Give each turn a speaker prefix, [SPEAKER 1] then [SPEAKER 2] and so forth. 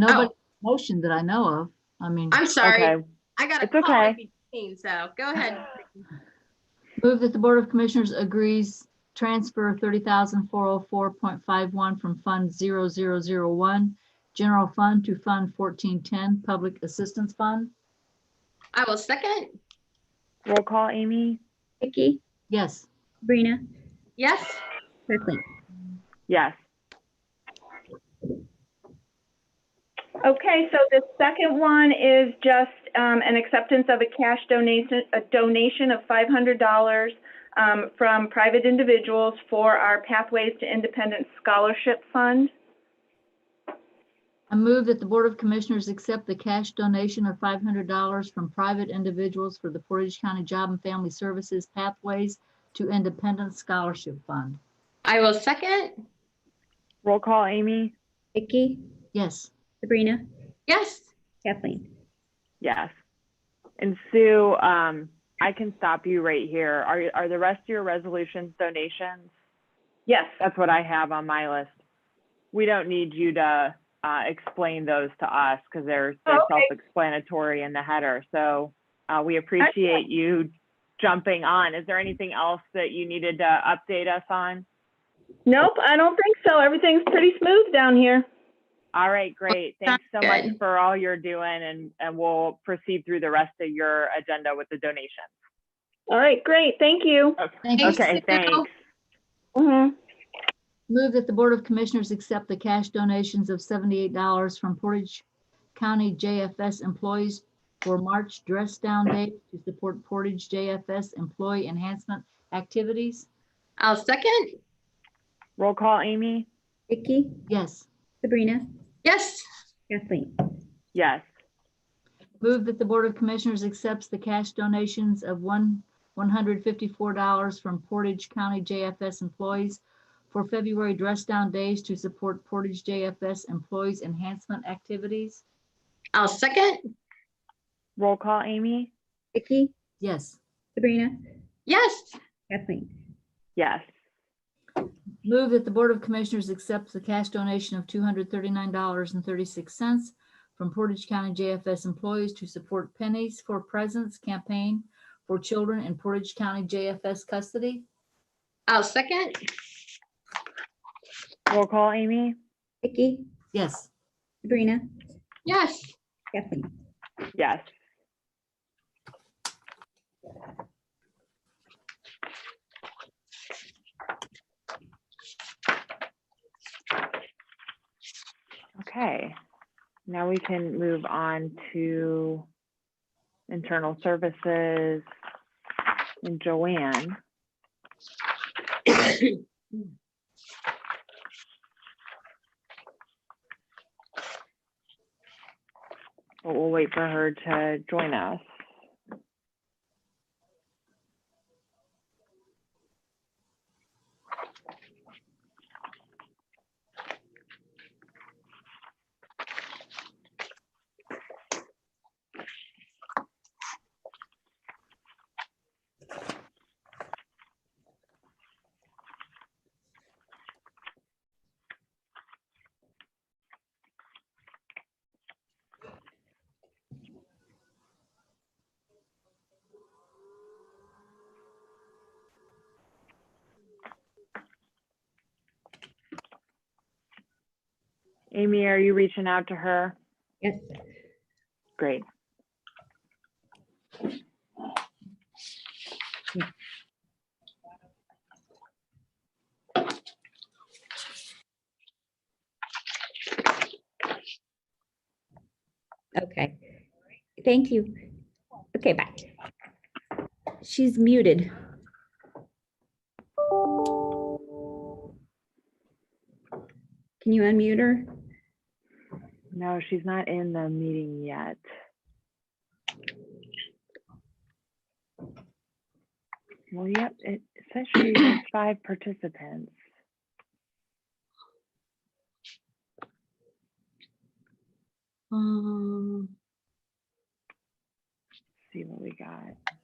[SPEAKER 1] Nobody motioned that I know of. I mean,
[SPEAKER 2] I'm sorry.
[SPEAKER 3] Okay.
[SPEAKER 2] I got a
[SPEAKER 3] It's
[SPEAKER 2] call at
[SPEAKER 3] okay.
[SPEAKER 2] 15, so go ahead.
[SPEAKER 1] move that the Board of Commissioners agrees transfer thirty thousand four oh four point five one from Fund zero zero zero one, General Fund to Fund fourteen ten, Public Assistance Fund.
[SPEAKER 2] I will second.
[SPEAKER 3] Roll call, Amy?
[SPEAKER 4] Vicky,
[SPEAKER 1] Yes,
[SPEAKER 4] Sabrina,
[SPEAKER 2] Yes,
[SPEAKER 4] Kirkland.
[SPEAKER 3] Yes.
[SPEAKER 5] Okay, so the second one is just um, an acceptance of a cash donation, a donation of $500 um, from private individuals for our Pathways to Independence Scholarship Fund.
[SPEAKER 1] I move that the Board of Commissioners accept the cash donation of five hundred dollars from private individuals for the Portage County Job and Family Services Pathways to Independence Scholarship Fund.
[SPEAKER 2] I will second.
[SPEAKER 3] Roll call, Amy?
[SPEAKER 4] Vicky,
[SPEAKER 1] Yes,
[SPEAKER 4] Sabrina,
[SPEAKER 2] Yes,
[SPEAKER 4] Kathleen.
[SPEAKER 3] Yes. And Sue, um, I can stop you right here. Are, are the rest of your resolutions donations?
[SPEAKER 5] Yes,
[SPEAKER 3] That's what I have on my list. We don't need you to, uh, explain those to us because they're, they're
[SPEAKER 5] Oh, okay.
[SPEAKER 3] self-explanatory in the header. So, uh, we appreciate you jumping on. Is there anything else that you needed to update us on?
[SPEAKER 5] nope, I don't think so. Everything's pretty smooth down here.
[SPEAKER 3] All right, great. Thanks so
[SPEAKER 2] sounds
[SPEAKER 3] much
[SPEAKER 2] good.
[SPEAKER 3] for all you're doing and, and we'll proceed through the rest of your agenda with the donations.
[SPEAKER 5] All right, great, thank you.
[SPEAKER 1] thank you.
[SPEAKER 2] Thanks,
[SPEAKER 3] Okay,
[SPEAKER 2] Sue.
[SPEAKER 3] thanks.
[SPEAKER 5] Mhm.
[SPEAKER 1] Move that the Board of Commissioners accept the cash donations of seventy-eight dollars from Portage County JFS employees for March dress down day to support Portage JFS employee enhancement activities.
[SPEAKER 2] I'll second.
[SPEAKER 3] Roll call, Amy?
[SPEAKER 4] Vicky,
[SPEAKER 1] Yes.
[SPEAKER 4] Sabrina,
[SPEAKER 2] Yes,
[SPEAKER 4] Kathleen.
[SPEAKER 3] Yes.
[SPEAKER 1] Move that the Board of Commissioners accepts the cash donations of one, one hundred fifty-four dollars from Portage County JFS employees for February dress down days to support Portage JFS employees enhancement activities.
[SPEAKER 2] I'll second.
[SPEAKER 3] Roll call, Amy?
[SPEAKER 4] Vicky,
[SPEAKER 1] Yes.
[SPEAKER 4] Sabrina,
[SPEAKER 2] Yes,
[SPEAKER 4] Kathleen.
[SPEAKER 3] Yes.
[SPEAKER 1] Move that the Board of Commissioners accepts the cash donation of two hundred thirty-nine dollars and thirty-six cents from Portage County JFS employees to support Pennies for Presence campaign for children in Portage County JFS custody.
[SPEAKER 2] I'll second.
[SPEAKER 3] Roll call, Amy?
[SPEAKER 4] Vicky,
[SPEAKER 1] Yes.
[SPEAKER 4] Sabrina,
[SPEAKER 2] Yes,
[SPEAKER 4] Kathleen.
[SPEAKER 3] Yes. Okay, now we can move on to internal services and Joanne. But we'll wait for her to join us. Amy, are you reaching out to her?
[SPEAKER 4] Yes.
[SPEAKER 3] Great.
[SPEAKER 4] Okay. Thank you. Okay, bye. She's muted. Can you unmute her?
[SPEAKER 3] No, she's not in the meeting yet. Well, yep, it says she has five participants.
[SPEAKER 2] Um,
[SPEAKER 3] See what we got.